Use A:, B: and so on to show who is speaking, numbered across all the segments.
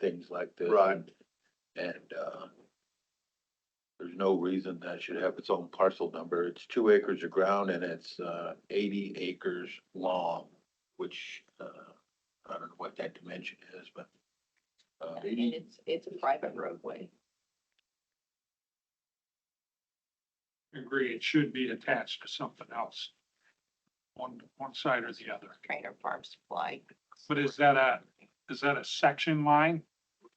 A: things like this.
B: Right.
A: And, uh, there's no reason that should have its own parcel number. It's two acres of ground and it's, uh, eighty acres long, which, uh, I don't know what that dimension is, but, uh,
C: And it's, it's a private roadway.
D: agree, it should be attached to something else. On one side or the other.
C: Trainer Farm Supply.
D: But is that a, is that a section line?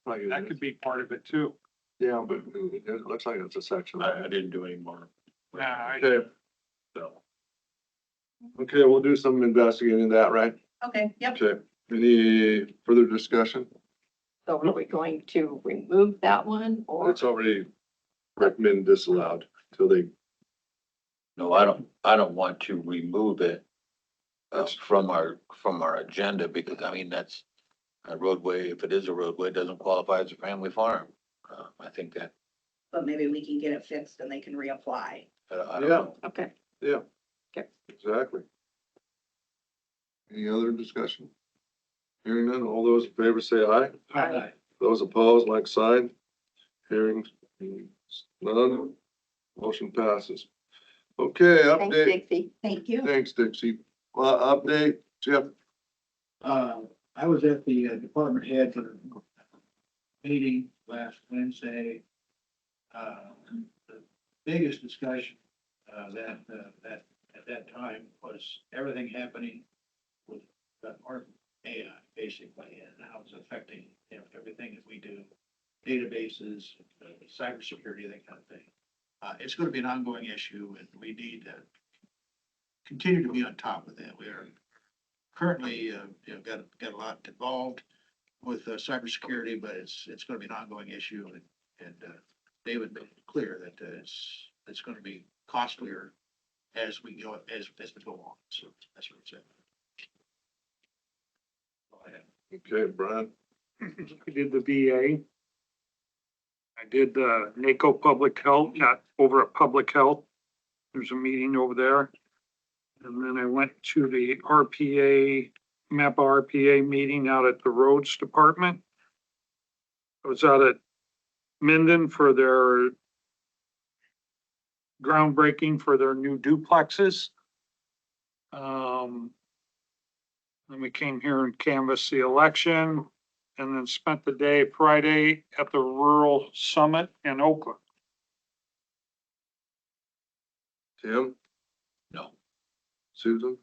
B: Like,
D: That could be part of it too.
B: Yeah, but it looks like it's a section.
A: I, I didn't do any more,
D: Nah, I-
B: Okay,
A: so.
B: okay, we'll do some investigating of that, right?
C: Okay, yep.
B: Okay, any further discussion?
C: So are we going to remove that one or?
B: It's already recommended disallowed till they,
A: No, I don't, I don't want to remove it uh,
B: That's-
A: from our, from our agenda because, I mean, that's a roadway, if it is a roadway, it doesn't qualify as a family farm. Uh, I think that,
E: but maybe we can get it fixed and they can reapply.
A: I don't- I don't
B: Yeah.
A: know.
C: Okay,
B: exactly. Any other discussion? Hearing none, all those in favor say aye.
D: I-
B: Those opposed, like sign. Hearing none, motion passes. Okay,
C: thanks,
B: update,
C: Dixie.
E: Thank you.
B: thanks Dixie. Uh, update, Jeff,
F: Uh, I was at the uh, department head for the meeting last Wednesday. Uh, the biggest discussion, uh, that, uh, that, at that time was everything happening with, uh, our AI basically, and how it's affecting, you know, everything that we do. Databases, uh, cybersecurity, that kind of thing. Uh, it's gonna be an ongoing issue and we need to continue to be on top of that. We are currently, uh, you know, got, got a lot involved with uh, cybersecurity, but it's, it's gonna be an ongoing issue and, and, uh, David made it clear that uh, it's, it's gonna be costlier as we go, as, as we go on, so that's what I'm saying. Go ahead.
B: okay, Brian,
D: I did the VA. I did the NACO Public Health, not over at Public Health. There's a meeting over there. And then I went to the RPA, MAPA RPA meeting out at the Roads Department. I was out at Minden for their groundbreaking for their new duplexes. Um, then we came here and canvassed the election and then spent the day Friday at the Rural Summit in Oakland.
B: Tim,
A: No,
B: Susan,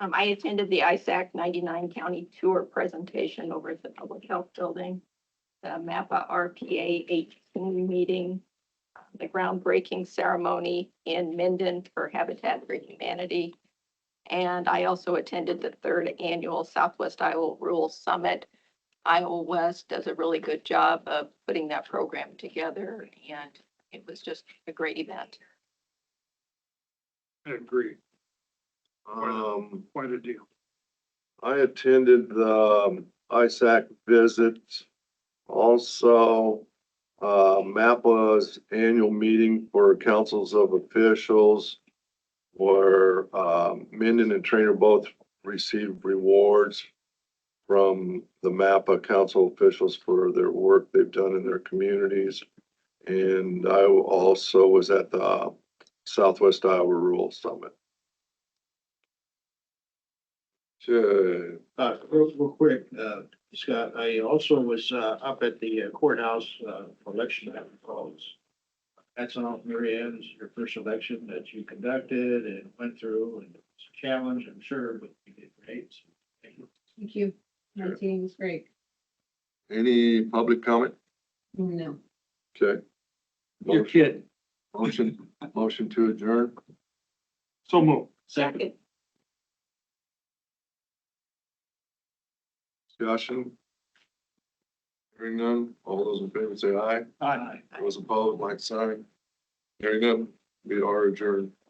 C: Um, I attended the ISAC ninety-nine county tour presentation over at the Public Health Building, the MAPPA RPA eighteen meeting, the groundbreaking ceremony in Minden for Habitat for Humanity. And I also attended the third annual Southwest Iowa Rural Summit. Iowa West does a really good job of putting that program together, and it was just a great event.
D: I agree,
B: um,
D: quite a deal.
B: I attended the um, ISAC visit. Also, uh, MAPPA's annual meeting for councils of officials where, um, Minden and Trainer both received rewards from the MAPPA council officials for their work they've done in their communities. And I also was at the Southwest Iowa Rural Summit. Okay.
F: Uh, real, real quick, uh, Scott, I also was, uh, up at the courthouse, uh, for election that was called. That's on Mary Ann's, your first election that you conducted and went through and it's a challenge, I'm sure, but you did great. Thank you.
G: Thank you.
B: Sure.
G: Nineteen was great.
B: Any public comment?
G: No.
B: Okay.
D: Your
B: Motion-
D: kid.
B: Motion, motion to adjourn.
D: So move.
C: Second.
B: Discussion. Hearing none. All those in favor say aye.
D: Aye.
B: Those opposed, like sign. Hearing none. We are adjourned.